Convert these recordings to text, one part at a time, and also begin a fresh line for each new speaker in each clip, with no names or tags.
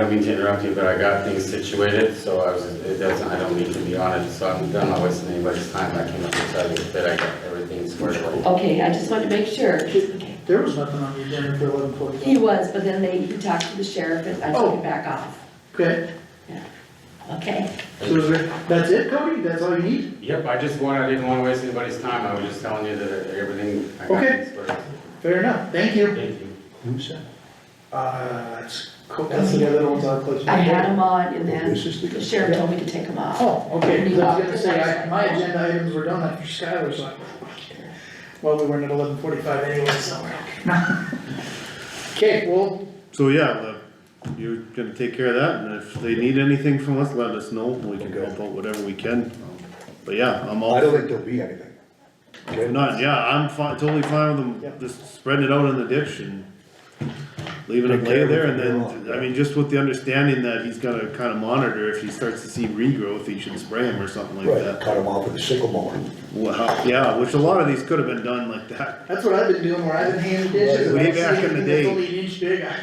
I don't mean to interrupt you, but I got things situated, so I was, it doesn't, I don't mean to be on it, so I'm done, not wasting anybody's time, I came up to tell you that I got everything squared away.
Okay, I just wanted to make sure.
There was nothing on the agenda for eleven
He
forty.
was, but then they, he talked to the sheriff and I took it back off.
Okay,
Okay,
so is there, that's it, Cody? That's all you need?
Yep, I just wanted, I didn't wanna waste anybody's time, I was just telling you that everything, I got
Okay.
things squared away.
Fair enough, thank you.
Thank you.
Who's that?
Uh, it's, co- that's the other ones I'll put.
I had them on and then
This is
the
the,
sheriff told me to take them off.
Oh, okay, 'cause I was gonna say, I- my agenda items were done after Skylar, so, I- well, we weren't at eleven forty-five anyway, so. we're okay. Okay, well,
So yeah, Le- you're gonna take care of that, and if they need anything from us, let us know, we can
Okay.
help out whatever we can. Um, But yeah, I'm all,
I don't
if
think there'll be anything. Okay?
not, yeah, I'm fi- totally fine with
Yeah.
them, just spreading it out in the ditch and leaving it
Take care
lay
of it
there,
from
and
here
then,
on.
I mean, just with the understanding that he's gonna kinda monitor, if he starts to see regrowth, he should spray him or something like
Right,
that.
cut them off with a sickle mower.
Wow, yeah, which a lot of these could've been done like that,
that's what I've been doing, where I've been handing dishes.
Way
and I see
back in the
anything
day.
That's only an inch big, I-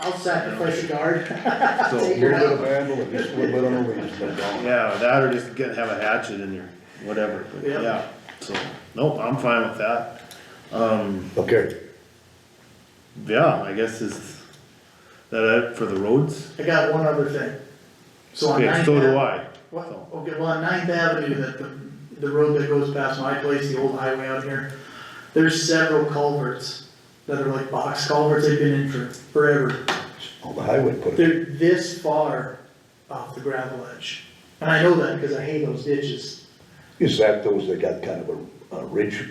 I'll sacrifice a guard.
so,
A little bit of vandal, and just a little bit on the leaves, but gone.
yeah, that or just get, have a hatchet in your, whatever, but
Yeah.
yeah, so, nope, I'm fine with that. Um,
Okay,
Yeah, I guess is that it for the roads?
I got one other thing. So on
Okay,
Ninth
so do
Ave-
I.
What,
So-
okay, well, on Ninth Avenue, that the, the road that goes past my place, the old highway out here, there's several culverts that are like box culverts, they've been in for forever.
on the highway, put it,
They're this far off the gravel edge, and I know that because I hate those ditches.
is that those that got kind of a, a ridge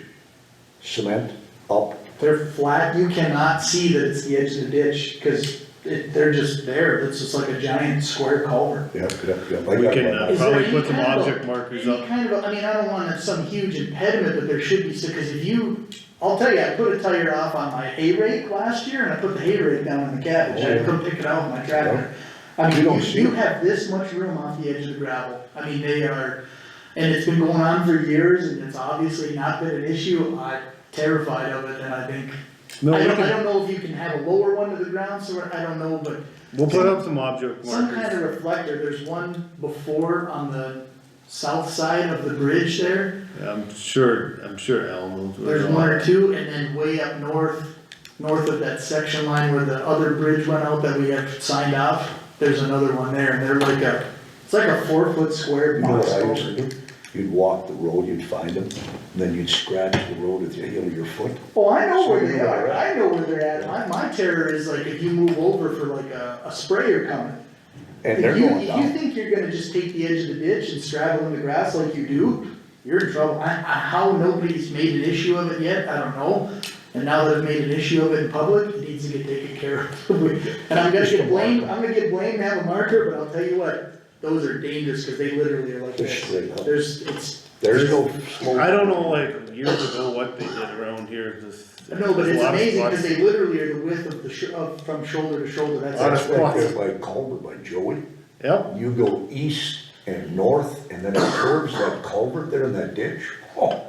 cement up?
They're flat, you cannot see that it's the edge of the ditch, because it, they're just there, it's just like a giant square culvert.
Yeah, yeah, yeah. I
We
got
can
one.
uh,
Is there
probably
any
put some
kind of a-
object markers
Any
up.
kind of, a- I mean, I don't want some huge impediment, but there should be, so, cause if you, I'll tell you, I put a tire off on my hay rake last year, and I put the hay rake down in the cabbage, I couldn't pick it out with my tractor. I
Oh. You
mean,
don't
you,
see
you
it.
have this much room off the edge of the gravel, I mean, they are, and it's been going on for years, and it's obviously not been an issue, I'm terrified of it, and I think,
No,
I
we
don't, I
can,
don't know if you can have a lower one to the ground, so, I don't know, but
we'll put up some object
some kind of
markers.
reflector, there's one before on the south side of the bridge there,
I'm sure, I'm sure Al knows. what
there's
it's
one
on.
or two, and then way up north, north of that section line where the other bridge went out that we have signed off, there's another one there, and they're like a, it's like a four foot square
You know
box
what I used
culvert.
to do? You'd walk the road, you'd find them, and then you'd scratch the road with the heel of your foot.
Oh, I know where
So you
they
know
are,
where-
I know where they're at, my, my terror is like if you move over for like a, a sprayer coming.
And they're
If you,
going
if you
down.
think you're gonna just take the edge of the ditch and straddle in the grass like you do, you're in trouble. I, I, how nobody's made an issue of it yet, I don't know. And now they've made an issue of it in public, it needs to get taken care of. And I'm gonna
Just a
get blamed,
marker.
I'm gonna get blamed to have a marker, but I'll tell you what, those are dangerous, cause they literally are like
They're
this.
straight up.
There's, it's,
There's no slope.
I don't know, like years ago, what they did around here, this.
no, but
there's a
it's
lot of
amazing,
spots.
cause they literally are the width of the sh- of, from shoulder to shoulder, that's.
Lot of
That's right
spots.
there by Culver, by Joey.
Yep,
You go east and north, and then it curves that culvert there in that ditch. Oh,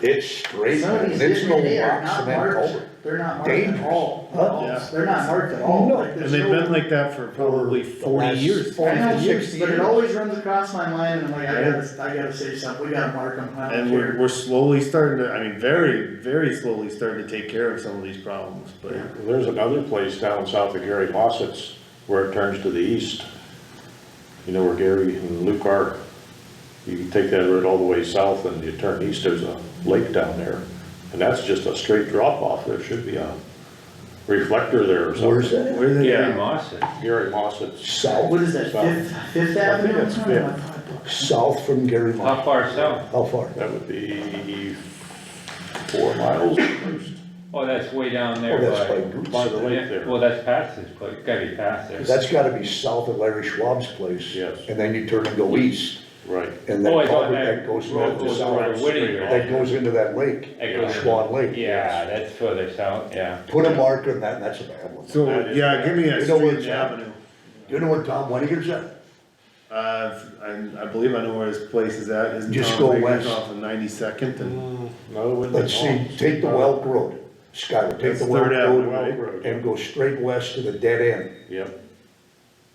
It's straight,
Some of these
and it's no
different, they are
rocks
not
in that
marked,
culvert.
they're not marked at
Dangerous.
all,
Huh?
No,
Yeah.
they're not marked at all.
No.
Like,
and
there's
they've
no-
been like that for probably
the
forty
last
years.
four-
I know,
50, 60
but it
years.
always runs across my mind, and I'm like, I gotta, I gotta say something, we gotta mark them, I don't
And we're,
care.
we're slowly starting to, I mean, very, very slowly starting to take care of some of these problems, but.
There's another place down south of Gary Mossett's where it turns to the east. You know where Gary and Luke are? You can take that road all the way south and you turn east, there's a lake down there. And that's just a straight drop off. There should be a reflector there or something.
Where's that?
Where they?
Yeah.
Moss it.
Gary Mossett's.
South,
What is that, Fifth, Fifth
I think
Avenue?
it's
Oh,
Fifth.
I thought it was.
south from Gary Mark.
How far south?
How far?
That would be four miles at most
Oh, that's way down there
Oh, that's
by.
by Goose.
by the lake
Yeah,
there.
Well, that's past this place, gotta be past there.
That's gotta be south of Larry Schwab's place.
Yes.
And then you turn and go east,
Right.
and
Oh, I
that
thought
culvert that goes
road
north to
goes
south.
over to Whittier.
That goes into that lake,
That goes-
Schwan Lake.
Yeah, that's further south, yeah.
Put a marker in that, and that's a bad one.
So,
That is
yeah,
bad.
give me a
You know where
street
it's
and
at?
avenue.
You know what Tom Weniger said?
Uh, I, I believe I know where his place is at, isn't
Just
Tom
go
Baker's
west.
off of ninety-second and,
No, it wouldn't be
Let's see,
long.
take the Welk Road, Skylar, take
That's
the Welk
Third Avenue,
Road
right?
and go straight west to the dead end.
Yep,